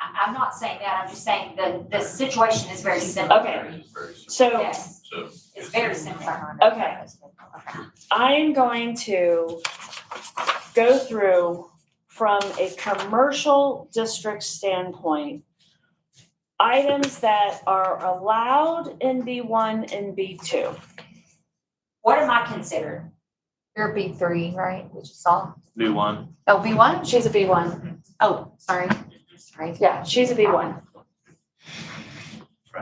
I'm not saying that, I'm just saying the, the situation is very similar. Okay. Very soon, So Yes, so. it's very similar. Okay. I am going to go through from a commercial district standpoint, items that are allowed in B one and B two. What am I considered? You're B three, right, which is all, New one. oh, B one? She's a B one. Oh, sorry, sorry. Yeah, she's a B one.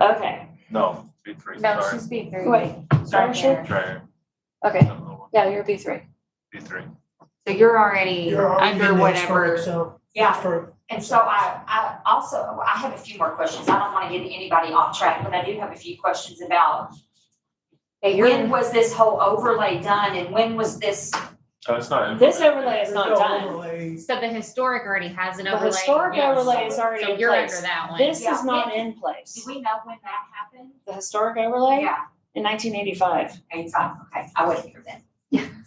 Okay, No, B three, No, sorry. she's B three. wait, Sorry. Sorry, Sharon. Try Okay, another one. yeah, you're B three. B three. So you're already You're already under in that whatever. So, Yeah, for, and so I, I also, I have a few more questions. I don't want to get anybody off track, but I do have a few questions about Yeah, you're when was this whole overlay done and when was this, Oh, it's not. in- this overlay is not there's no done. overlay. So the historic already has an The overlay. historic Yes. overlay is already So in you're under place. that one. This Yeah. is not in do place. we know when that happened? The historic overlay Yeah, in nineteen eighty-five. okay, fine, okay, I wasn't here then.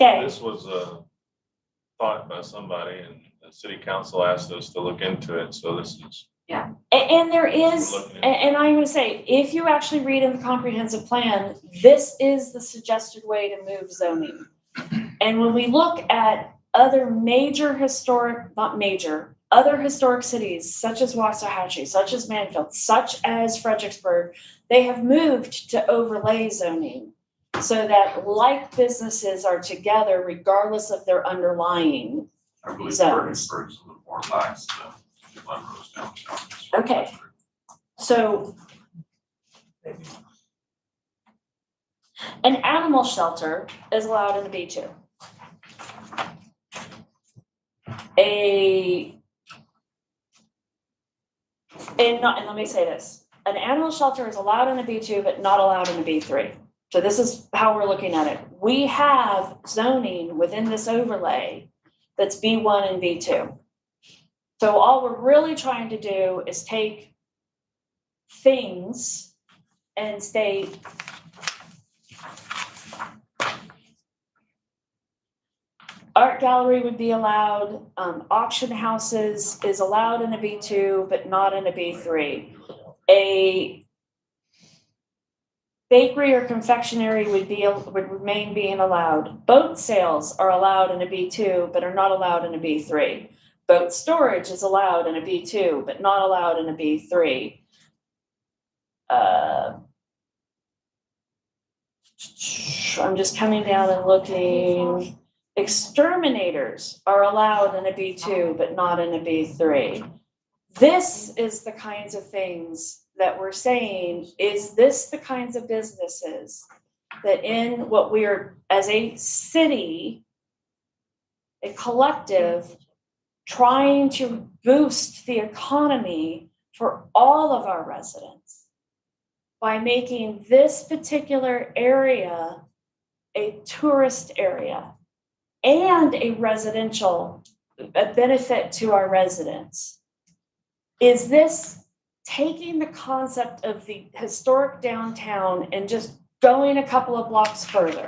Okay, This was uh thought by somebody and the city council asked us to look into it, so this is. a- and there is, We're looking at- a- and I'm gonna say, if you actually read in the comprehensive plan, this is the suggested way to move zoning. And when we look at other major historic, not major, other historic cities such as Waxahachie, such as Manfield, such as Fredericksburg, they have moved to overlay zoning so that like businesses are together regardless of their underlying I believe Zones. Fredericksburg's a little more lax than Glenrose downtown. Okay. So. An animal shelter is allowed in the B two. A. And not, and let me say this, an animal shelter is allowed in the B two, but not allowed in the B three. So this is how we're looking at it. We have zoning within this overlay that's B one and B two. So all we're really trying to do is take things and state art gallery would be allowed, um, auction houses is allowed in a B two, but not in a B three. A bakery or confectionery would be, would remain being allowed. Boat sales are allowed in a B two, but are not allowed in a B three. Boat storage is allowed in a B two, but not allowed in a B three uh, I'm just coming down and looking. Exterminators are allowed in a B two, but not in a B three. This is the kinds of things that we're saying, is this the kinds of businesses that in what we are, as a city, a collective, trying to boost the economy for all of our residents? by making this particular area a tourist area and a residential, a benefit to our residents. Is this taking the concept of the historic downtown and just going a couple of blocks further?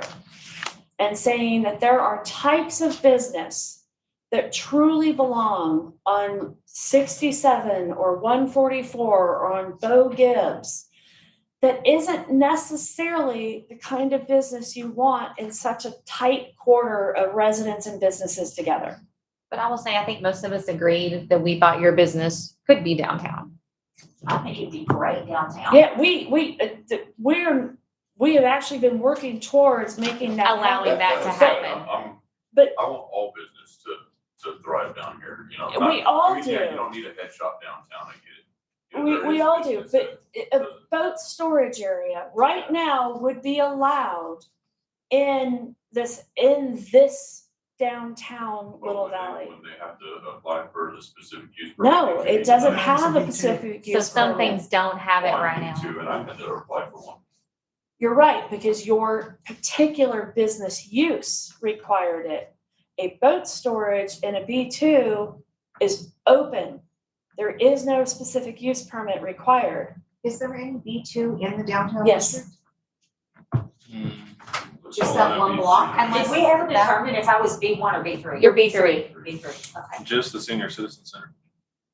And saying that there are types of business that truly belong on sixty-seven or one forty-four or on Bo Gibbs that isn't necessarily the kind of business you want in such a tight quarter of residents and businesses together. But I will say, I think most of us agreed that we thought your business could be downtown. I think it'd be great downtown. Yeah, we, we, uh, th- we're, we have actually been working towards making that happen. Allowing that That's to what I'm saying. I'm- happen. I'm- But- um, I want all business to, to thrive down here, you know. We not- all you can't- do. You don't need a head shop downtown, I get it. You know, We, there we is all do, business but a a boat storage area right now would be allowed in this, in this downtown that- little when they- valley. When they have to apply for the specific use. permit, No, they it need doesn't to- have a Something to- specific So use. some permit. things don't have it One, right two, now. And I had to apply for one. You're right, because your particular business use required it. A boat storage in a B2 is open. There is no specific use permit required. Is there any B two in the downtown Yes. district? Just that one block? Did we ever determine if I was B one or B three? You're B three. B three, okay. Just the senior citizen center.